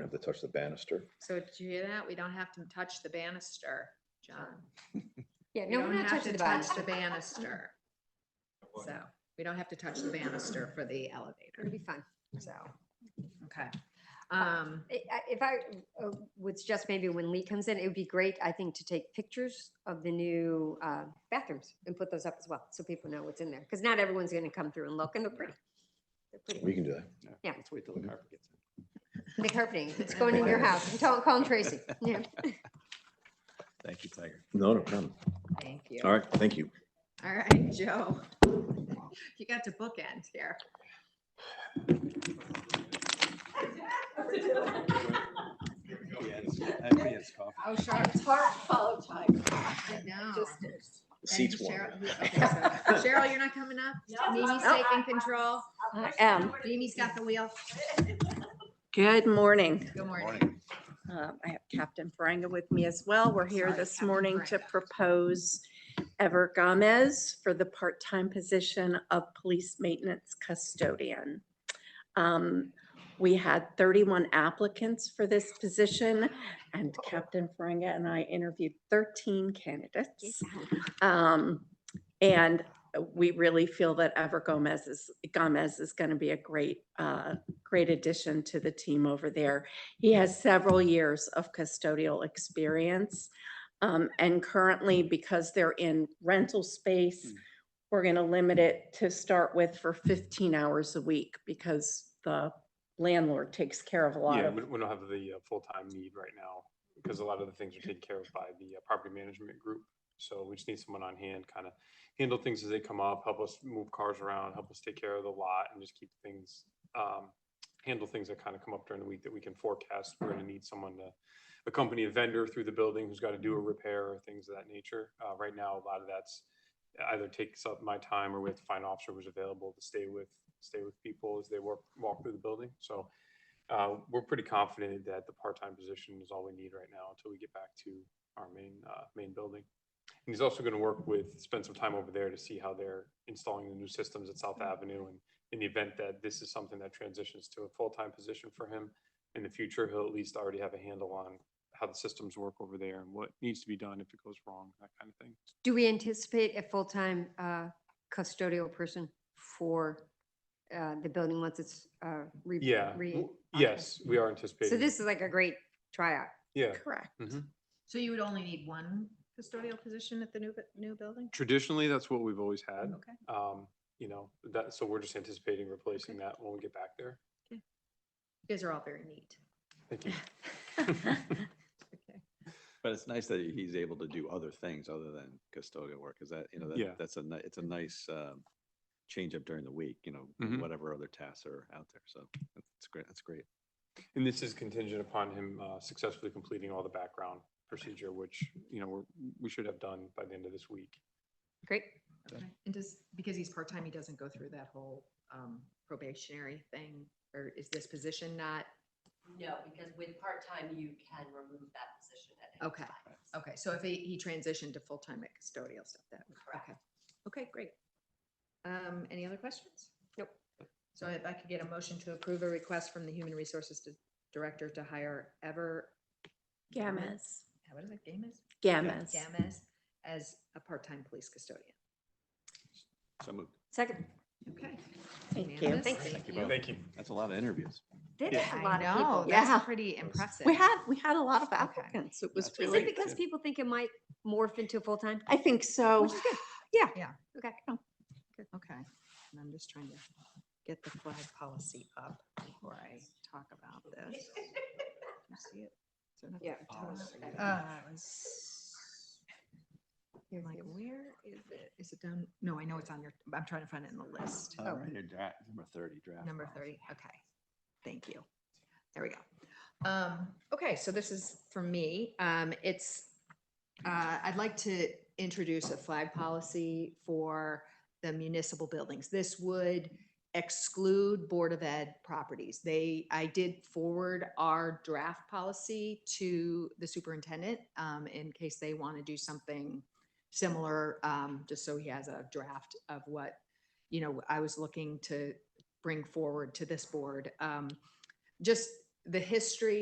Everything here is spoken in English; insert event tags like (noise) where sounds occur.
have to touch the banister. So did you hear that? We don't have to touch the banister, John. Yeah, We no, we're don't have not to touching the touch banister. the banister. So we don't have to touch the banister for the It'll elevator. be fun, so. Okay. Um, I- I- If I uh, was just maybe when Lee comes in, it would be great, I think, to take pictures of the new uh, bathrooms and put those up as well, so people know what's in there. Because not everyone's going to come through and look, and they're pretty. They're pretty. We can do that. Yeah. Let's wait till the carpet gets in. (laughs) The carpeting, it's going in your house. I'm telling, calling Tracy. (laughs) Yeah. Thank you, Tiger. No, no problem. thank you. All right, thank you. All right, Joe. You got to bookend here. Oh, Charlotte's heart followed Tiger. I know. Just- Thank Seats you, warm. Cheryl. Who- okay, so Cheryl, you're not coming up? No. Mimi's No. taking control. I am. Mimi's got the wheel. Good morning. Good morning. Morning. Um, I have Captain Ferenga with me as well. We're here Sorry, this Captain morning to Ferenga. propose Ever Gomez for the part-time position of police maintenance custodian. Um, We had 31 applicants for this position, and Captain Ferenga and I interviewed 13 candidates. Um, and we really feel that Ever Gomez is, Gomez is going to be a great, uh, great addition to the team over there. He has several years of custodial experience. Um, and currently, because they're in rental space, Mm. we're going to limit it to start with for fifteen hours a week because the landlord takes care of a lot Yeah, of we, we don't have the uh, full-time need right now, because a lot of the things are taken care of by the uh, property management group. So we just need someone on hand, kind of handle things as they come up, help us move cars around, help us take care of the lot and just keep things, um, handle things that kind of come up during the week that we can forecast. We're gonna need someone to accompany a vendor through the building who's got to do a repair or things of that nature. Uh, right now, a lot of that's either takes up my time or we have to find an officer who's available to stay with, stay with people as they work, walk through the building. So uh, we're pretty confident that the part-time position is all we need right now until we get back to our main, uh, main building. And he's also gonna work with, spend some time over there to see how they're installing the new systems at South Avenue. And in the event that this is something that transitions to a full-time position for him in the future, he'll at least already have a handle on how the systems work over there and what needs to be done if it goes wrong, that kind of thing. Do we anticipate a full-time uh, custodial person for uh, the building once it's uh, re? Yeah, re- w- okay. yes, we are So anticipating. this is like a great tryout. Yeah. correct. mhm. So you would only need one custodial position at the new, bu- new building? Traditionally, that's what we've always had. Okay. Um, you know, that, so we're just anticipating replacing that when we get back there. You guys are all very neat. Thank you. (laughs) Okay. But it's nice that he- he's able to do other things other than custodial work, because that, you know, Yeah. that, that's a, ni- it's a nice, um, change up during the week, you know, Mhm. whatever other tasks are out there. So that's great. That's great. And this is contingent upon him uh, successfully completing all the background procedure, which, you know, we're, we should have done by the end of this week. Great. Okay. And does, because he's part-time, he doesn't go through that whole um, probationary thing? Or is this position not, No, because with part-time, you can remove that position at any Okay. time. okay, so if he, he transitioned to full-time at custodial stuff, that, would- okay. Okay, great. Um, Any other questions? Nope. So if I could get a motion to approve a request from the Human Resources Di- Director to hire Ever, Gammas, what is it, Gamas? gammas. Gamas as a part-time police custodian. So moved. Second. Okay. Thank you. Unanimous? Thank you. you both. Thank you. That's a lot of interviews. That's Yeah. a I lot of people. know, that's Yeah. pretty impressive. We had, we had a lot of Okay. applicants. It was That's Is really. it because people think it might morph into a full-time? I think so. Which is (sighs) good. Yeah. Yeah. Oh. Okay. Okay, and I'm just trying to get the flag policy up before I talk about this. You see it? So that's Yeah. the top. Uh, it was- I'm like, where is it? Is it down? No, I know it's on your, I'm trying to find it in the list. Oh, All right, your draft, number thirty draft. Oh. Number policy. thirty, okay. Thank you. There we go. Um, okay, so this is for me. Um, it's, uh, I'd like to introduce a flag policy for the municipal buildings. This would exclude Board of Ed properties. They, I did forward our draft policy to the superintendent, um, in case they want to do something similar, um, just so he has a draft of what, you know, I was looking to bring forward to this board. Um, Just the history